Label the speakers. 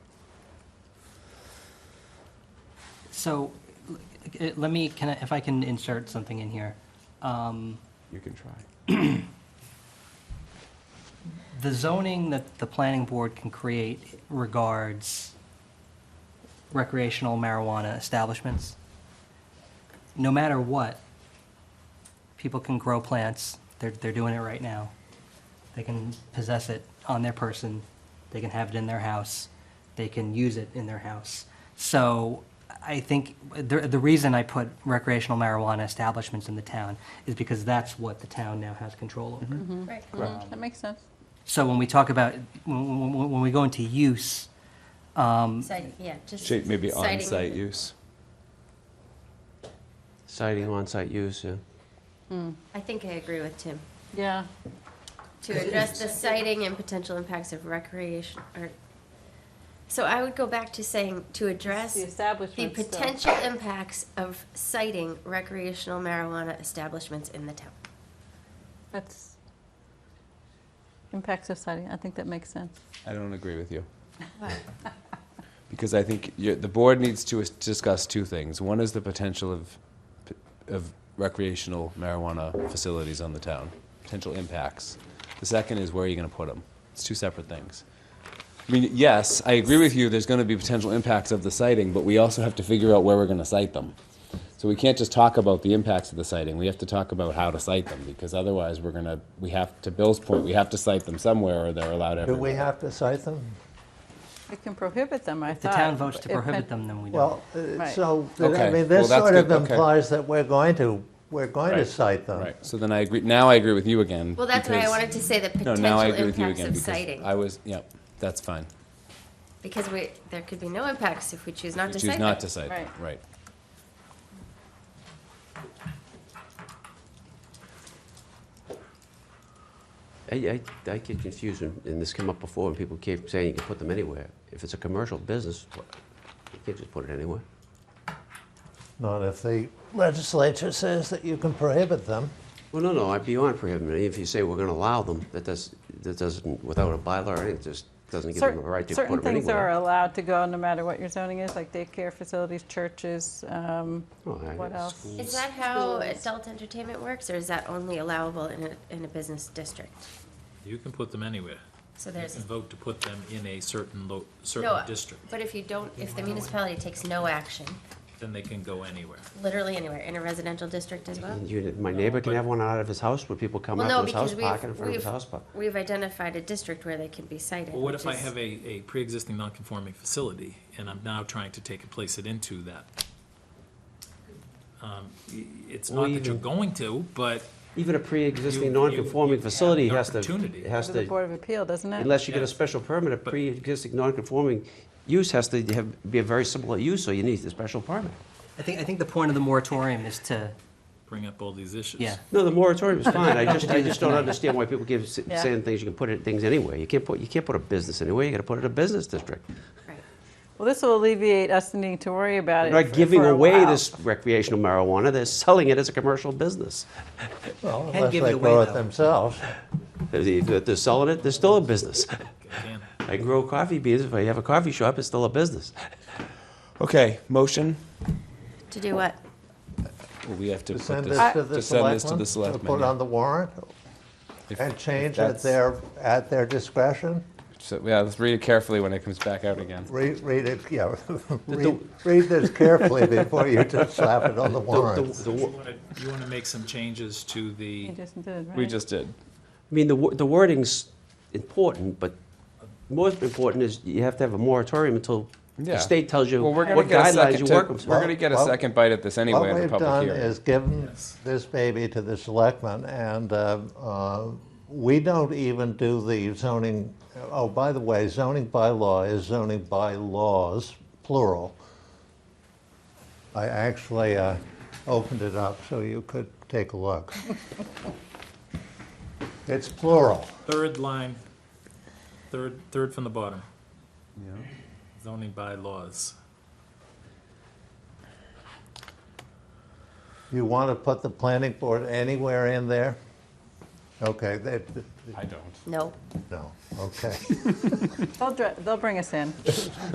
Speaker 1: So l- eh, let me, can I, if I can insert something in here. Um,
Speaker 2: You can try.
Speaker 1: The zoning that the planning board can create regards recreational marijuana establishments. No matter what, people can grow plants, they're, they're doing it right now. They can possess it on their person, they can have it in their house, they can use it in their house. So I think, the, the reason I put recreational marijuana establishments in the town is because that's what the town now has control over.
Speaker 3: Right.
Speaker 2: Correct.
Speaker 4: That makes sense.
Speaker 1: So when we talk about, when, when, when we go into use,
Speaker 3: Site- yeah, just.
Speaker 2: Shape Um, maybe
Speaker 3: citing-
Speaker 2: on-site use.
Speaker 5: Citing on-site use, yeah.
Speaker 3: I think I agree with Tim.
Speaker 4: Yeah,
Speaker 3: To address the sighting and potential impacts of recreation, or, so I would go back to saying, to address
Speaker 4: the
Speaker 3: the
Speaker 4: establishment stuff.
Speaker 3: potential impacts of citing recreational marijuana establishments in the town.
Speaker 4: That's impact society. I think that makes sense.
Speaker 2: I don't agree with you. Because I think you the board needs to is- discuss two things. One is the potential of, of recreational marijuana facilities on the town, potential impacts. The second is where are you going to put them? It's two separate things. I mean, yes, I agree with you, there's going to be potential impacts of the sighting, but we also have to figure out where we're going to site them. So we can't just talk about the impacts of the sighting. We have to talk about how to site them because otherwise we're going to, we have, to Bill's point, we have to site them somewhere or they're allowed
Speaker 6: Do
Speaker 2: everywhere.
Speaker 6: we have to cite them?
Speaker 4: It can prohibit them, I
Speaker 1: if the
Speaker 4: thought.
Speaker 1: town votes to
Speaker 4: It
Speaker 1: prohibit
Speaker 4: pen-
Speaker 1: them, then we don't.
Speaker 6: Well, uh,
Speaker 4: Right.
Speaker 6: so, th- I
Speaker 2: Okay.
Speaker 6: mean,
Speaker 2: Well,
Speaker 6: this
Speaker 2: that's
Speaker 6: sort of
Speaker 2: good. Okay.
Speaker 6: implies that we're going to, we're going to
Speaker 2: Right.
Speaker 6: cite them.
Speaker 2: Right. So then I agree. Now I agree with you again.
Speaker 3: Well, that's why I
Speaker 2: because-
Speaker 3: wanted to say the
Speaker 2: No, now
Speaker 3: potential
Speaker 2: I agree with you
Speaker 3: impacts
Speaker 2: again
Speaker 3: of
Speaker 2: because
Speaker 3: citing.
Speaker 2: I was. Yep. That's fine.
Speaker 3: Because we, there could be no impacts if we choose not
Speaker 2: You
Speaker 3: to
Speaker 2: choose
Speaker 3: cite
Speaker 2: not
Speaker 3: them.
Speaker 2: to cite.
Speaker 4: Right.
Speaker 2: Right. right.
Speaker 5: I, I, I get confused, when- and this came up before, and people keep saying you can put them anywhere. If it's a commercial business, wha- you can't just put it anywhere.
Speaker 6: Not if the legislature says that you can prohibit them.
Speaker 5: Well, no, no, I'm beyond prohibiting. If you say we're gonna allow them, that does, that doesn't, without a bylaw, or anything, it just doesn't give them the
Speaker 4: Cer-
Speaker 5: right to put them
Speaker 4: Certain
Speaker 5: anywhere.
Speaker 4: things are allowed to go, no matter what your zoning is, like daycare facilities, churches, um,
Speaker 5: Oh, I-
Speaker 4: what else?
Speaker 5: schools.
Speaker 3: Is that how
Speaker 4: Schools.
Speaker 3: adult entertainment works, or is that only allowable in a, in a business district?
Speaker 7: You can put them anywhere.
Speaker 3: So
Speaker 7: You
Speaker 3: there's
Speaker 7: can vote to put them in a certain lo,
Speaker 3: No,
Speaker 7: certain district,
Speaker 3: But if you don't, if the municipality takes no action,
Speaker 7: then they can go anywhere.
Speaker 3: literally anywhere, in a residential district as well?
Speaker 5: You- My neighbor can have one out of his house, where people come
Speaker 3: Well,
Speaker 5: out
Speaker 3: no,
Speaker 5: to his
Speaker 3: because
Speaker 5: house, park it in
Speaker 3: we've,
Speaker 5: front of his
Speaker 3: we've,
Speaker 5: house, but.
Speaker 3: we've identified a district where they can be cited.
Speaker 7: Well, what
Speaker 3: which
Speaker 7: if I
Speaker 3: is-
Speaker 7: have a, a pre-existing non-conforming facility, and I'm now trying to take and place it into that? Um, i- It's
Speaker 5: Or
Speaker 7: not that you're
Speaker 5: even-
Speaker 7: going to, but
Speaker 5: Even a
Speaker 7: You-
Speaker 5: pre-existing
Speaker 7: you-
Speaker 5: non-conforming
Speaker 7: you have
Speaker 5: facility
Speaker 7: the
Speaker 5: has to,
Speaker 7: opportunity.
Speaker 5: has
Speaker 4: to the
Speaker 5: to,
Speaker 4: Board of Appeal, doesn't it?
Speaker 5: unless you get a
Speaker 7: Yes.
Speaker 5: special permit, a
Speaker 7: But-
Speaker 5: pre-existing non-conforming use has to have, be a very similar use, so you need a special permit.
Speaker 1: I think, I think the point of the moratorium is to,
Speaker 7: bring up all these issues.
Speaker 1: yeah.
Speaker 5: No, the moratorium is fine, I just, I just don't understand why people keep s-
Speaker 4: Yeah.
Speaker 5: saying things, you can put it, things anywhere. You can't put, you can't put a business anywhere, you gotta put it in a business district.
Speaker 3: Right.
Speaker 4: Well, this will alleviate us needing to worry about it.
Speaker 5: They're
Speaker 4: for-
Speaker 5: not giving
Speaker 4: for a
Speaker 5: away
Speaker 4: while.
Speaker 5: this recreational marijuana, they're selling it as a commercial business.
Speaker 6: Well,
Speaker 1: Can't
Speaker 6: unless
Speaker 1: give
Speaker 6: they
Speaker 1: it away,
Speaker 6: grow it
Speaker 1: though.
Speaker 6: themselves.
Speaker 5: They're they're selling it, they're still a business.
Speaker 7: Again,
Speaker 5: I grow coffee beans, if I have a coffee shop, it's still a business.
Speaker 2: Okay. Motion.
Speaker 3: To do what?
Speaker 2: Well, we have to,
Speaker 6: To
Speaker 2: put
Speaker 6: send
Speaker 2: this,
Speaker 6: this to the
Speaker 2: to send this to
Speaker 6: selectmen,
Speaker 2: the
Speaker 6: to
Speaker 2: selectmen.
Speaker 6: put
Speaker 2: yeah.
Speaker 6: on the warrant,
Speaker 2: If-
Speaker 6: and change at
Speaker 2: that's-
Speaker 6: their, at their discretion.
Speaker 2: So, yeah. Let's read it carefully when it comes back out again.
Speaker 6: Read, read it, yeah, read, read this carefully before you just slap it on the
Speaker 5: The- the-
Speaker 6: warrant.
Speaker 5: the wa-
Speaker 7: you wanna- You want to make some changes to
Speaker 4: You
Speaker 7: the,
Speaker 4: just did, right?
Speaker 2: We just did.
Speaker 5: I mean, the, wo- the wording's important, but most important is you have to have a moratorium until
Speaker 2: Yeah.
Speaker 5: the state tells you
Speaker 2: Well, we're going
Speaker 5: what
Speaker 2: to get a
Speaker 5: guidelines you
Speaker 2: second.
Speaker 5: work
Speaker 2: To,
Speaker 5: with.
Speaker 2: we're going to get a
Speaker 6: Well,
Speaker 2: second bite at this anyway
Speaker 6: What
Speaker 2: in the
Speaker 6: we've
Speaker 2: public
Speaker 6: done
Speaker 2: hearing.
Speaker 6: is given
Speaker 7: Yes.
Speaker 6: this baby to the selectmen, and uh, uh, we don't even do the zoning, oh, by the way, zoning bylaw is zoning bylaws, plural. I actually uh, opened it up so you could take a look. It's plural.
Speaker 7: third line, third, third from the bottom. Zoning bylaws.
Speaker 6: You want to put the planning board anywhere in there? Okay, that,
Speaker 2: I don't.
Speaker 3: No.
Speaker 6: no, okay.
Speaker 4: They'll, dr- they'll bring us in.